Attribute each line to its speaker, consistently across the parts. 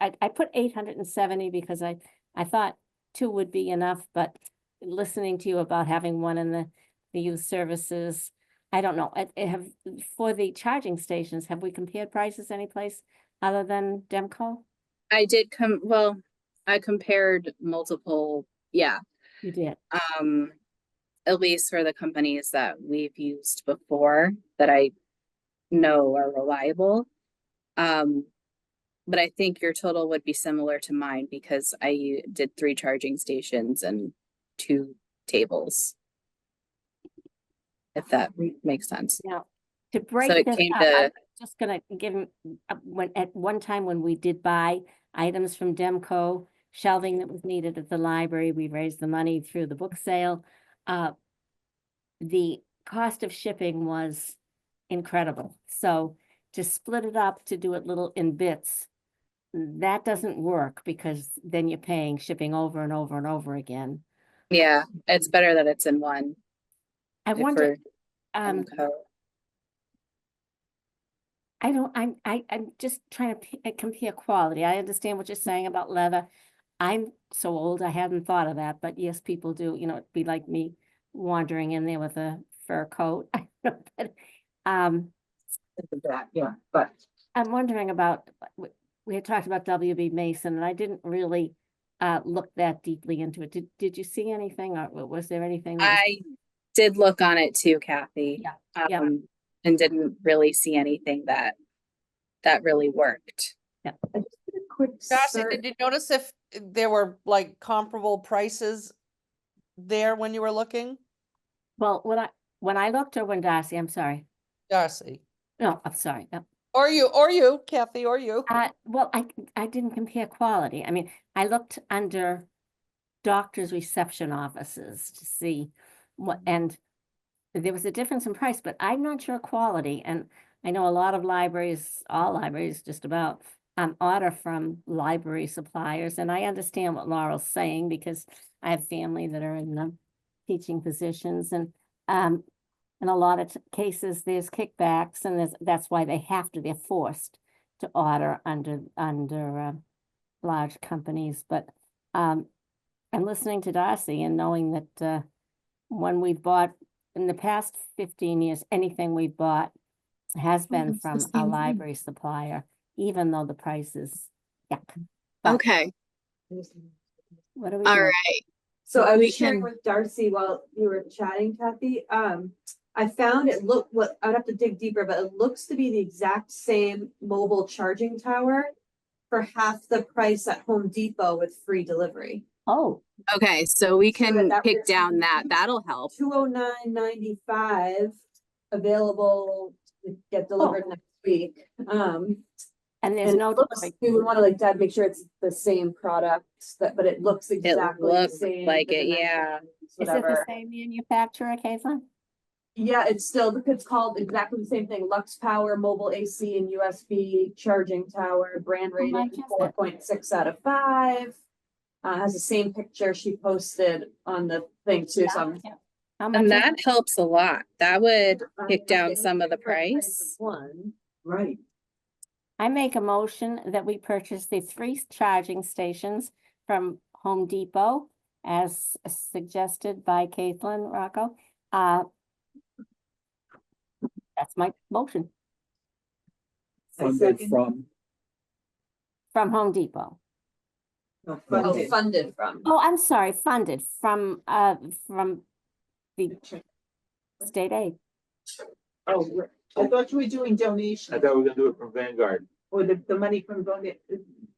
Speaker 1: I, I put eight hundred and seventy because I, I thought two would be enough, but listening to you about having one in the, the youth services, I don't know, I, I have, for the charging stations, have we compared prices anyplace other than Demco?
Speaker 2: I did come, well, I compared multiple, yeah,
Speaker 1: You did,
Speaker 2: um, at least for the companies that we've used before that I know are reliable. Um, but I think your total would be similar to mine because I u- did three charging stations and two tables. If that makes sense.
Speaker 1: now, to break this
Speaker 2: it
Speaker 1: up,
Speaker 2: came
Speaker 1: I'm
Speaker 2: to-
Speaker 1: just gonna give, 'em, uh, when, at one time when we did buy items from Demco, shelving that was needed at the library, we raised the money through the book sale, uh, the cost of shipping was incredible. So to split it up, to do it little in bits, that doesn't work because then you're paying shipping over and over and over again.
Speaker 2: Yeah, it's better that it's in one.
Speaker 1: I
Speaker 2: if
Speaker 1: wonder,
Speaker 2: we're
Speaker 1: um,
Speaker 2: Demco.
Speaker 1: I don't, I'm, I, I'm just trying to p- uh, compare quality. I understand what you're saying about leather. I'm so old, I hadn't thought of that, but yes, people do, you know, it'd be like me wandering in there with a fur coat. I don't know, but, Um,
Speaker 3: It's a bad, yeah, but
Speaker 1: I'm wondering about, w- we had talked about WB Mason, and I didn't really uh look that deeply into it. Did, did you see anything, or w- was there anything? that was-
Speaker 2: I did look on it too, Kathy.
Speaker 1: yeah.
Speaker 2: um, And didn't really see anything that, that really worked.
Speaker 3: I just did a quick
Speaker 4: Josh,
Speaker 3: search.
Speaker 4: did you notice if there were like comparable prices there when you were looking?
Speaker 1: Well, when I, when I looked, or when Darcy, I'm sorry,
Speaker 4: Darcy,
Speaker 1: no, I'm sorry, no.
Speaker 4: or you, or you, Kathy, or you.
Speaker 1: Uh, well, I, I didn't compare quality. I mean, I looked under doctor's reception offices to see what, and there was a difference in price, but I'm not sure quality. And I know a lot of libraries, all libraries just about, um, order from library suppliers. And I understand what Laurel's saying because I have family that are in the teaching positions and, um, in a lot of t- cases, there's kickbacks and there's, that's why they have to, they're forced to order under, under, uh, large companies, but, um, I'm listening to Darcy and knowing that, uh, when we bought, in the past fifteen years, anything we bought has been
Speaker 3: that's Oh, the
Speaker 1: from
Speaker 3: same
Speaker 1: a
Speaker 3: thing.
Speaker 1: library supplier, even though the price is, yuck. But
Speaker 5: Okay,
Speaker 1: What are we
Speaker 5: all
Speaker 1: doing?
Speaker 5: right.
Speaker 6: So I
Speaker 5: We
Speaker 6: was sharing
Speaker 5: can-
Speaker 6: with Darcy while you were chatting, Kathy, um, I found it look, what, I'd have to dig deeper, but it looks to be the exact same mobile charging tower for half the price at Home Depot with free delivery,
Speaker 1: Oh,
Speaker 5: Okay, so we
Speaker 6: So that
Speaker 5: can
Speaker 6: that
Speaker 5: kick
Speaker 6: was-
Speaker 5: down that. That'll help.
Speaker 6: two oh nine ninety-five, available to get delivered next week. Um,
Speaker 1: and Oh. there's
Speaker 6: and
Speaker 1: no.
Speaker 6: it looks,
Speaker 1: delivery
Speaker 6: we would wanna like, Deb, make sure it's the same product, that, but it looks exactly the
Speaker 2: looked
Speaker 6: same.
Speaker 2: like
Speaker 6: the
Speaker 2: it, yeah.
Speaker 6: dimensions,
Speaker 1: Is it the
Speaker 6: Whatever.
Speaker 1: same manufacturer, Caitlin?
Speaker 6: Yeah, it's still, it's called exactly the same thing, Lux Power Mobile AC and USB Charging Tower, brand
Speaker 1: Oh, I
Speaker 6: rating
Speaker 1: guess
Speaker 6: four
Speaker 1: that-
Speaker 6: point six out of five. Uh, has the same picture she posted on the thing too, so. I'm-
Speaker 1: How much?
Speaker 2: And
Speaker 1: is
Speaker 2: that
Speaker 1: it?
Speaker 2: helps a lot. That would
Speaker 6: I'm
Speaker 2: kick down
Speaker 6: looking
Speaker 2: some of the
Speaker 6: for a
Speaker 2: price.
Speaker 6: of One,
Speaker 3: Right,
Speaker 1: I make a motion that we purchase the three charging stations from Home Depot as suggested by Caitlin Rocco. Uh, That's my motion
Speaker 3: funded
Speaker 6: second.
Speaker 3: from,
Speaker 1: from Home Depot.
Speaker 3: not
Speaker 6: oh,
Speaker 3: funded.
Speaker 6: funded from.
Speaker 1: Oh, I'm sorry, funded from, uh, from the state aid.
Speaker 3: Oh, right. I thought you were doing
Speaker 7: I
Speaker 3: donations
Speaker 7: thought we were gonna do it from Vanguard.
Speaker 3: or the, the money from donate.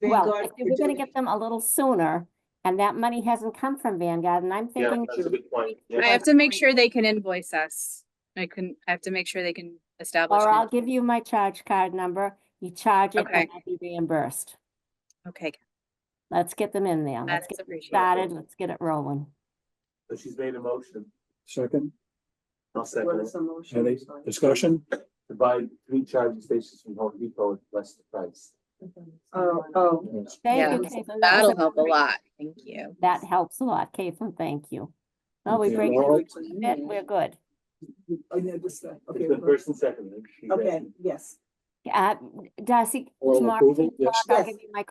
Speaker 1: Well, if we're gonna get them a little sooner and that money hasn't come from Vanguard and I'm
Speaker 7: Yeah,
Speaker 1: thinking.
Speaker 7: that's a good point.
Speaker 2: I
Speaker 7: Yeah.
Speaker 2: have to make sure they can invoice us. I can, I have to make sure they can establish.
Speaker 1: Or
Speaker 2: an
Speaker 1: I'll give you my charge card number. You charge it
Speaker 2: Okay.
Speaker 1: and I'll be reimbursed.
Speaker 2: invoice. Okay,
Speaker 1: Let's get them in there.
Speaker 2: that
Speaker 1: Let's
Speaker 2: is
Speaker 1: get
Speaker 2: appreciated.
Speaker 1: started. Let's get it rolling.
Speaker 7: So she's made a motion.
Speaker 3: Second,
Speaker 7: I'll
Speaker 6: What
Speaker 7: second
Speaker 6: is
Speaker 7: it.
Speaker 6: the motion?
Speaker 3: any discussion?
Speaker 7: To buy three charging stations from Home Depot at less the price.
Speaker 6: Oh, oh.
Speaker 1: Thank
Speaker 2: Yeah,
Speaker 1: you, Caitlin. That was
Speaker 2: That'll help a
Speaker 1: great-
Speaker 2: lot. Thank you.
Speaker 1: That helps a lot, Caitlin. Thank you. Well, we
Speaker 3: Okay,
Speaker 1: break
Speaker 3: Laurel?
Speaker 1: it in, we're good.
Speaker 3: I know this guy.
Speaker 7: It's been first and second. and she's
Speaker 3: Okay,
Speaker 7: asking.
Speaker 3: yes.
Speaker 1: Uh, Darcy,
Speaker 3: Oral
Speaker 1: tomorrow,
Speaker 3: approval,
Speaker 1: tomorrow
Speaker 3: yes.
Speaker 1: I'll
Speaker 3: Yes.
Speaker 1: give you my